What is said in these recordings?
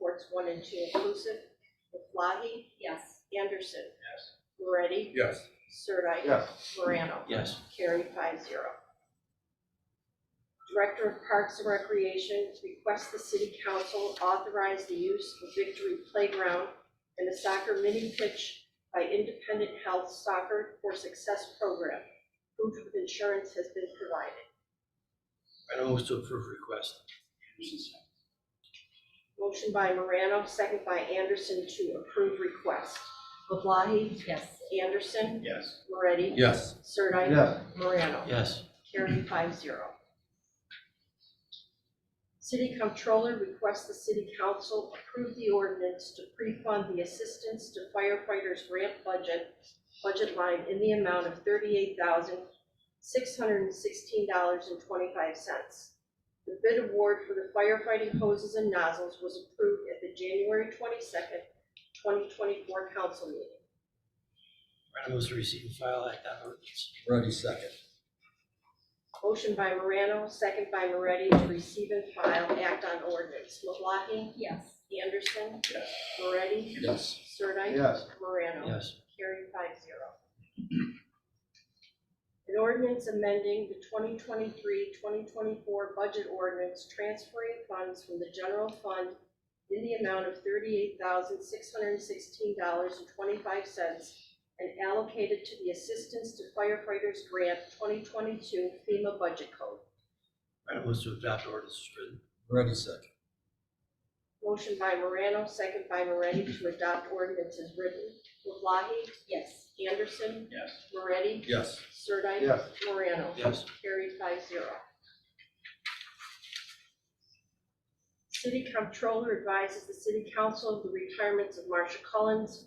wards one and two inclusive. Maflahe? Yes. Anderson? Yes. Moretti? Yes. Sirdike? Yes. Morano? Yes. Carried five zero. Director of Parks and Recreation requests the city council authorize the use of Victory Playground and the soccer mini pitch by Independent Health Soccer for Success Program. Proof of insurance has been provided. Morano moves to approve request. Anderson second. Motion by Morano, second by Anderson to approve request. LeBlancy, Yes. Anderson, Yes. Moretti, Yes. Sirdike. Yes. Morano. Yes. Carried five zero. City Comptroller requests the city council approve the ordinance to pre-fund the assistance to firefighters grant budget, budget line in the amount of thirty-eight thousand, six hundred and sixteen dollars and twenty-five cents. The bid award for the firefighting hoses and nozzles was approved at the January twenty-second, twenty twenty-four council meeting. Morano moves to receive and file act on ordinance. Ready second. Motion by Morano, second by Moretti, to receive and file act on ordinance. LeBlancy, Yes. Anderson. Yes. Moretti. Yes. Sirdike. Yes. Morano. Yes. Carried five zero. An ordinance amending the 2023-2024 budget ordinance transferring funds from the general fund in the amount of thirty-eight thousand, six hundred and sixteen dollars and twenty-five cents and allocated to the Assistance to Firefighters Grant twenty twenty-two FEMA Budget Code. Morano moves to adopt ordinance as written. Ready second. Motion by Morano, second by Moretti to adopt ordinance as written. LeBlancy, Yes. Anderson, Yes. Moretti, Yes. Sirdike. Yes. Morano. Yes. Carried five zero. City Comptroller advises the City Council of the retirements of Marsha Collins,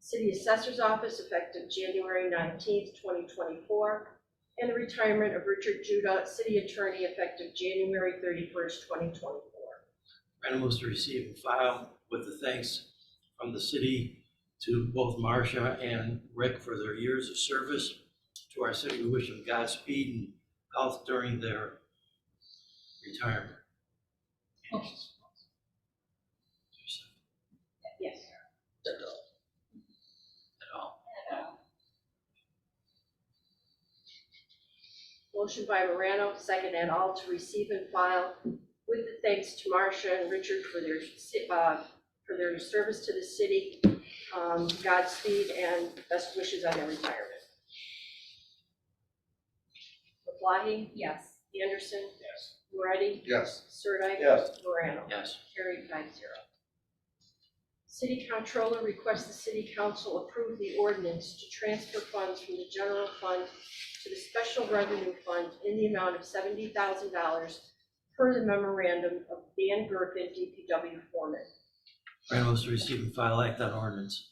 City Assessor's Office effective January nineteenth, twenty twenty-four, and the retirement of Richard Judah, City Attorney effective January thirty-first, twenty twenty-four. Morano moves to receive and file with the thanks from the city to both Marcia and Rick for their years of service to our city. We wish them Godspeed and health during their retirement. Motion. Yes. At all. Motion by Morano, second and all, to receive and file with the thanks to Marcia and Richard for their, si- uh, for their service to the city. Um, Godspeed and best wishes on their retirement. LeBlancy, Yes. Anderson, Yes. Moretti, Yes. Sirdike. Yes. Morano. Yes. Carried five zero. City Comptroller requests the City Council approve the ordinance to transfer funds from the general fund to the special revenue fund in the amount of seventy thousand dollars per the memorandum of Dan Gerken, DPW foreman. Morano moves to receive and file act on ordinance.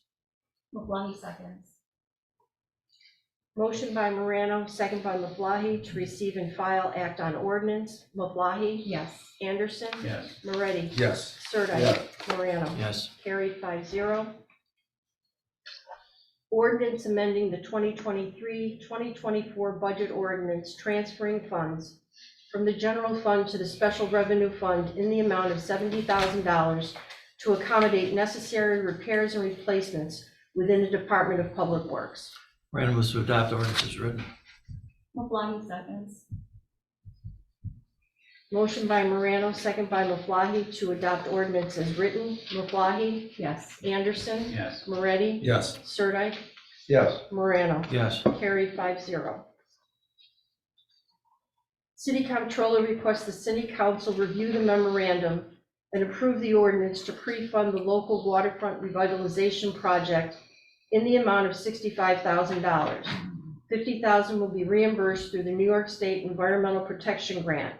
LeBlancy seconds. Motion by Morano, second by LeBlancy, to receive and file act on ordinance. LeBlancy, Yes. Anderson, Yes. Moretti, Yes. Sirdike, Yes. Morano. Yes. Carried five zero. Ordinance amending the 2023-2024 budget ordinance transferring funds from the general fund to the special revenue fund in the amount of $70,000 to accommodate necessary repairs and replacements within the Department of Public Works. Morano moves to adopt ordinance as written. LeBlancy seconds. Motion by Morano, second by Maflahe, to adopt ordinance as written. Maflahe, Yes. Anderson, Yes. Moretti, Yes. Sirdike, Yes. Morano. Yes. Carried five zero. City Comptroller requests the City Council review the memorandum and approve the ordinance to pre-fund the local waterfront revitalization project in the amount of sixty-five thousand dollars. Fifty thousand dollars will be reimbursed through the New York State Environmental Protection Grant.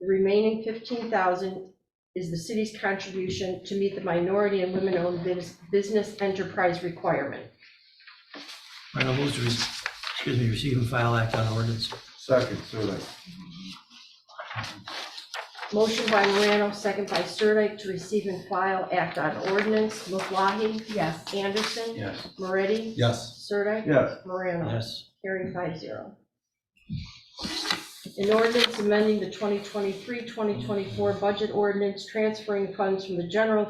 The remaining fifteen thousand dollars is the city's contribution to meet the minority and women-owned bus- business enterprise requirement. Morano moves to, re- excuse me, receive and file act on ordinance. Second, Surley. Motion by Morano, second by Sirdike, to receive and file act on ordinance. LeBlancy, Yes. Anderson, Yes. Moretti, Yes. Sirdike, Yes. Morano. Yes. Carried five zero. An ordinance amending the 2023-2024 budget ordinance transferring funds from the general